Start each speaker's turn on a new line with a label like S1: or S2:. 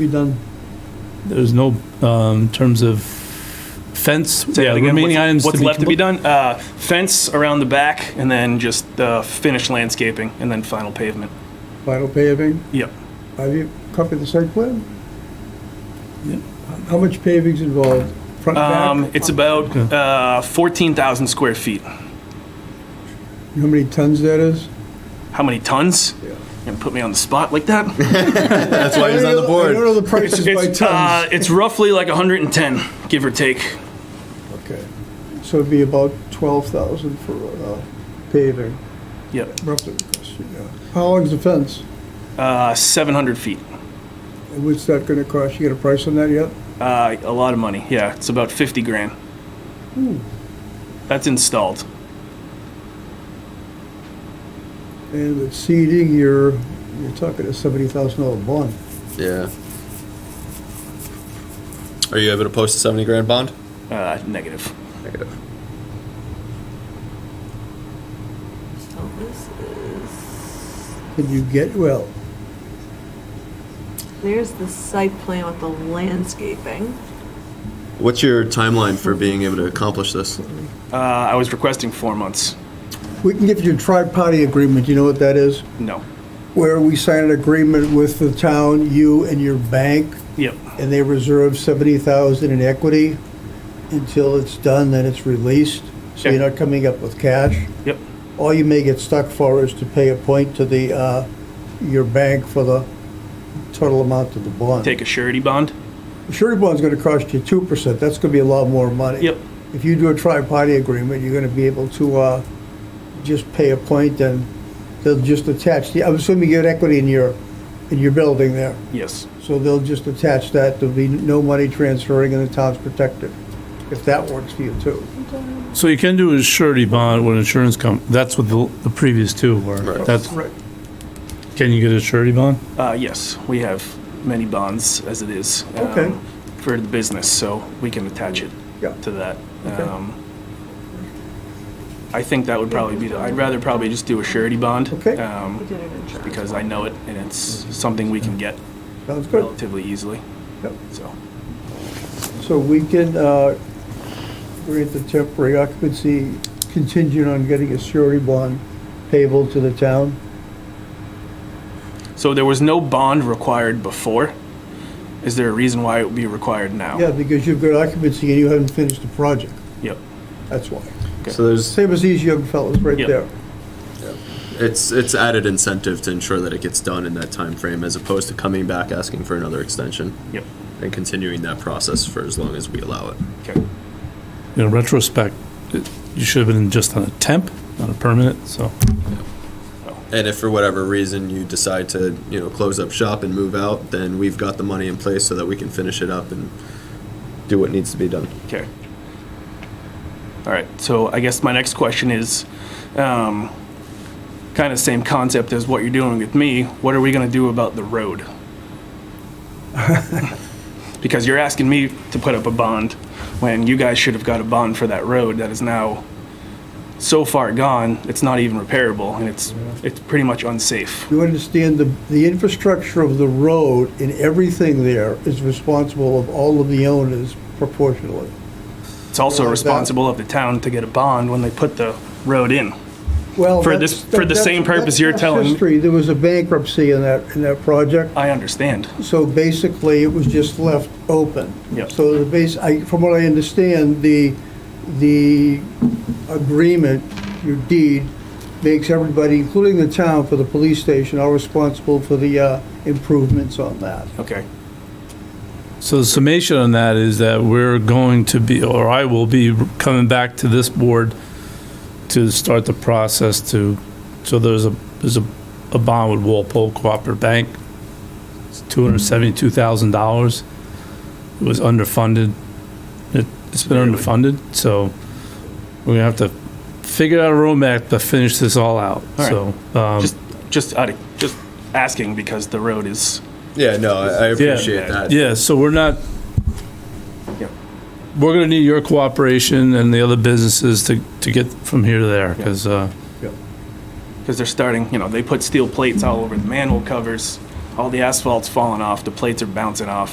S1: be done?
S2: There's no, um, in terms of fence,
S3: Say
S2: yeah,
S3: that again.
S2: remaining
S3: What's-
S2: items.
S3: What's left to be done? Uh, Fence around the back, and then just uh, finished landscaping, and then final pavement.
S1: Final paving?
S3: Yep.
S1: Have you copied the site plan?
S2: Yeah.
S1: How much paving's involved? Front,
S3: Um,
S1: back?
S3: It's about
S2: Okay.
S3: uh, 14,000 square feet.
S1: You know How many tons that is?
S3: How many tons?
S1: Yeah.
S3: And put me on the spot like that?
S4: That's why he's on the
S1: I don't
S4: board.
S1: know the prices by
S3: It's, uh,
S1: tons.
S3: it's roughly like 110, give or take.
S1: Okay. So it'd be about 12,000 for uh, paving,
S3: Yep.
S1: roughly. yeah. How long's the fence?
S3: Uh, 700 feet.
S1: And What's that gonna cost? You got a price on that yet?
S3: Uh, A lot of money, yeah. It's about 50 grand.
S1: Hmm.
S3: That's installed.
S1: And with seeding, you're, you're talking a $70,000 bond.
S4: Yeah. Are you able to post a 70 grand bond?
S3: Uh, Negative.
S4: Negative.
S5: So this is,
S1: Can you get, well,
S5: there's the site plan with the landscaping.
S4: What's your timeline for being able to accomplish this?
S3: Uh, I was requesting four months.
S1: we can get you a tri-party agreement, you know what that is?
S3: No.
S1: where we sign an agreement with the town, you and your bank,
S3: Yep.
S1: and they reserve seventy thousand in equity until it's done, then it's released, so you're
S3: Yeah.
S1: not coming up with cash.
S3: Yep.
S1: All you may get stuck for is to pay a point to the, uh, your bank for the total amount of the bond.
S3: Take a surety bond.
S1: Surety bond's gonna cost you two percent, that's gonna be a lot more money.
S3: Yep.
S1: If you do a tri-party agreement, you're gonna be able to, uh, just pay a point and they'll just attach, the- I'm assuming you get equity in your, in your building there.
S3: Yes.
S1: So they'll just attach that, there'll be no money transferring and the town's protected, if that works for you too.
S2: So you can do a surety bond with insurance com, that's what the, the previous two were.
S4: Right.
S2: That's,
S1: Right.
S2: can you get a surety bond?
S3: Uh, yes, we have many bonds as it is. um,
S1: Okay.
S3: For the business, so we can attach it
S1: Yeah.
S3: to that. Um, I think that would probably be, the- I'd rather probably just do a surety bond.
S1: Okay.
S5: We
S3: um,
S5: did an insurance.
S3: Because I know it and it's something we can get
S1: Sounds good.
S3: relatively easily,
S1: Yep.
S3: so.
S1: So we can, uh, grant the temporary occupancy contingent on getting a surety bond payable to the town?
S3: So there was no bond required before. Is there a reason why it would be required now?
S1: Yeah, because you've got occupancy and you haven't finished the project,
S3: Oh. Yep.
S1: that's why.
S4: So there's
S1: Same as these young fellows right
S3: Yep.
S1: there.
S4: it's it's added incentive to ensure that it gets done in that time frame as opposed to coming back asking for another extension
S3: Yep.
S4: and continuing that process for as long as we allow it.
S3: Okay.
S2: In retrospect, it- you should have been just on a temp, not a permanent, so.
S4: And if for whatever reason you decide to, you know, close up shop and move out, then we've got the money in place so that we can finish it up and do what needs to be done.
S3: Okay. All right, so I guess my next question is, um, kind of same concept as what you're doing with me. What are we gonna do about the road? Because you're asking me to put up a bond when you guys should have got a bond for that road that is now so far gone, it's not even repairable and it's, it's pretty much unsafe.
S1: You understand the, the infrastructure of the road and everything there is responsible of all of the owners proportionally.
S3: It's also
S1: Like that.
S3: responsible of the town to get a bond when they put the road in.
S1: Well,
S3: For
S1: that's-
S3: this- for the
S1: that's-
S3: same purpose
S1: that's
S3: you're
S1: past
S3: telling me.
S1: History, there was a bankruptcy in that, in that project,
S3: I understand.
S1: so basically it was just left open.
S3: Yep.
S1: So the base, I, from what I understand, the, the agreement, your deed, makes everybody, including the town for the police station, are responsible for the uh, improvements on that.
S3: Okay.
S2: So the summation on that is that we're going to be, or I will be coming back to this board to start the process to, so there's a, there's a, a bond with Walpole Cooperative Bank. It's two hundred seventy-two thousand dollars. It was underfunded. It, it's been underfunded, so we're gonna have to figure out a roadmap to finish this all out, so.
S3: All
S2: um,
S3: Just, just, out of- just asking because the road is,
S4: Yeah, no, I, I appreciate that.
S2: Yeah, so we're not,
S3: Yeah.
S2: we're gonna need your cooperation and the other businesses to, to get from here to there,
S3: Yeah.
S2: because, uh,
S3: because they're starting, you know, they put steel plates all over the manhole covers, all the asphalt's falling off, the plates are bouncing off.